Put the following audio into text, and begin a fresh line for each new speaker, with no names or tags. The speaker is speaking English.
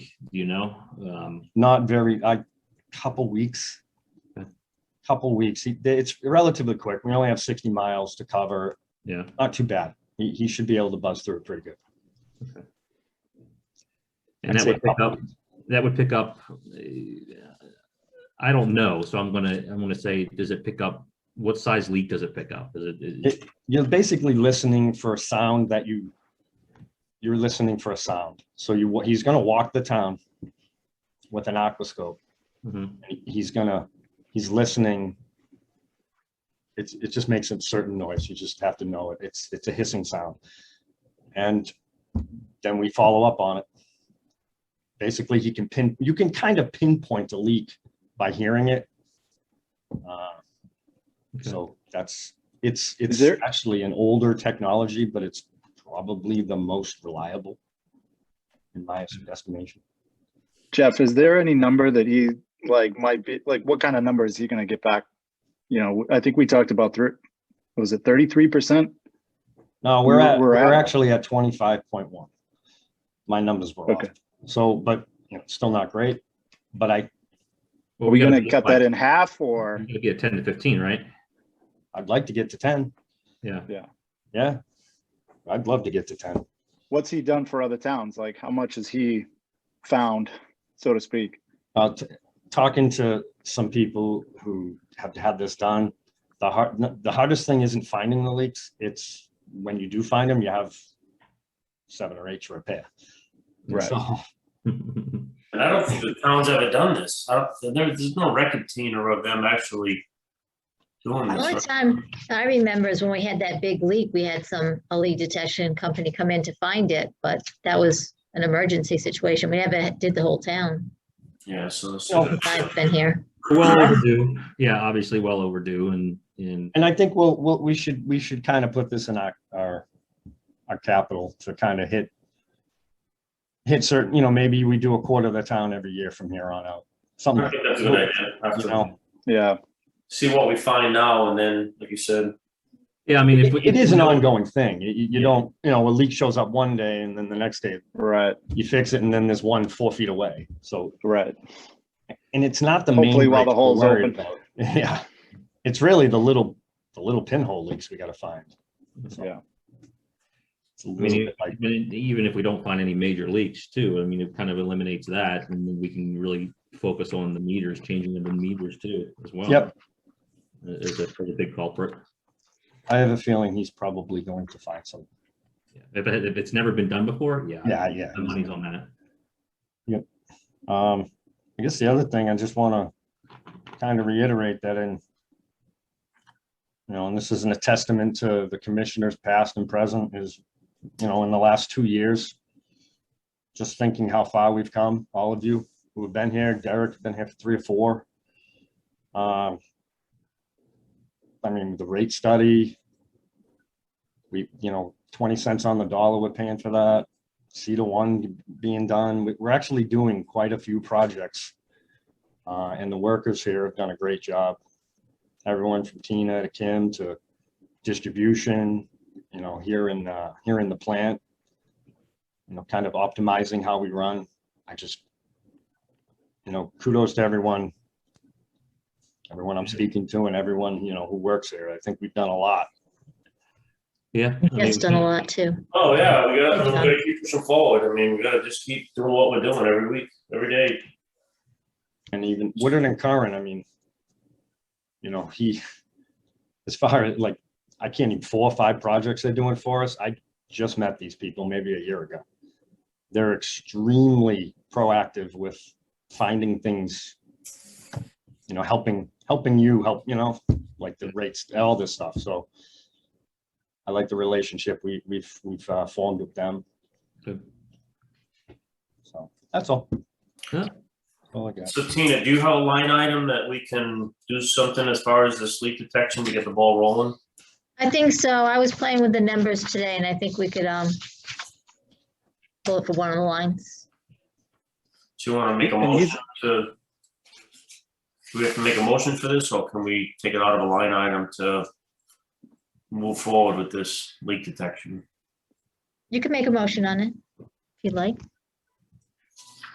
Do you know? Um,
not very, I, couple weeks. Couple weeks. He- It's relatively quick. We only have 60 miles to cover.
Yeah.
Not too bad. He, he should be able to buzz through it pretty good.
And
I'd
that
say
would pick
couple
up, that would pick up, uh, I don't know, so I'm gonna, I'm gonna say, does it pick up, what size leak does it pick up? Is it- is it,
You're basically listening for a sound that you, you're listening for a sound. So you, wa- he's gonna walk the town with an aquascope.
Mhm.
He- He's gonna, he's listening. It's, it just makes a certain noise. You just have to know it. It's, it's a hissing sound. And then we follow up on it. Basically, he can pin, you can kind of pinpoint a leak by hearing it. Uh,
Okay.
so that's, it's, it's
there-
actually an older technology, but it's probably the most reliable in my estimation.
Jeff, is there any number that he like might be like what kind of number is he going to get back? You know, I think we talked about thr- what was it 33%?
No, we're at,
We're
we're
at-
actually at twenty-five point one. My numbers were off.
Okay.
So, but, you know, still not great, but I,
well,
Are we
gotta Mhm.
going to
do
cut
like-
that in half or
we gotta Get ten to fifteen, right?
I'd like to get to ten.
Yeah.
Yeah.
Yeah. I'd love to get to ten.
what's he done for other towns? Like how much has he found, so to speak?
Uh, t- talking to some people who have had this done, the hard, n- the hardest thing isn't finding the leaks. It's when you do find them, you have seven or eight to repair.
Right.
So,
And I don't think the town's ever done this. I don't, there, there's no record, Tina, of them actually doing
The only
this.
time I remember is when we had that big leak, we had some, a leak detection company come in to find it, but that was an emergency situation. We never did the whole town.
Yeah, so. it's-
Well-
I've been here.
Well overdue, yeah, obviously well overdue and, and,
And I think we'll, we'll, we should, we should kind of put this in our, our, our capital to kind of hit, hit certain, you know, maybe we do a quarter of the town every year from here on out, something
I
like
think that's a good
that.
idea.
You
After-
know,
Yeah.
See what we find now and then, like you said,
yeah, I mean, if. we-
It is an ongoing thing. You, you- you don't, you know, a leak shows up one day and then the next day
Right.
you fix it and then there's one four feet away. So,
Right.
and it's not the main.
Hopefully while the
breaks we're
hole's
worried
open.
about. Yeah. It's really the little, the little pinhole leaks we got to find. So
Yeah.
It's a little
I mean,
bit like-
even- even if we don't find any major leaks too, I mean, it kind of eliminates that and then we can really focus on the meters, changing of the meters too as well.
Yep.
Is a pretty big culprit.
I have a feeling he's probably going to find something.
Yeah. If, it- if it's never been done before, yeah.
Yeah, yeah.
The money's on that.
Um, I guess the other thing, I just want to kind of reiterate that in, you know, and this isn't a testament to the commissioners past and present is, you know, in the last two years, just thinking how far we've come, all of you who have been here, Derek's been here for three or four. Um, I mean, the rate study, we, you know, 20 cents on the dollar, we're paying for that. CETA one being done. We- We're actually doing quite a few projects. Uh, and the workers here have done a great job. Everyone from Tina to Kim to distribution, you know, here in, uh, here in the plant. You know, kind of optimizing how we run. I just, you know, kudos to everyone. Everyone I'm speaking to and everyone, you know, who works here. I think we've done a lot.
Yeah. I
That's
mean,
done a lot too.
oh, yeah, we gotta, we gotta keep pushing forward. I mean, we gotta just keep doing what we're doing every week, every day.
And even Woodard and Curran, I mean, you know, he, as far as like, I can't even, four or five projects they're doing for us. I just met these people maybe a year ago. They're extremely proactive with finding things, you know, helping, helping you help, you know, like the rates, all this stuff. So I like the relationship we, we've, we've uh, formed with them.
Good.
So that's all.
Yeah.
All I got.
So Tina, do you have a line item that we can do something as far as the sleep detection to get the ball rolling?
I think so. I was playing with the numbers today and I think we could, um, pull it for one of the lines.
Do you wanna make a
And he's-
motion to? Do we have to make a motion for this, or can we take it out of a line item to move forward with this leak detection?
You can make a motion on it if you'd like.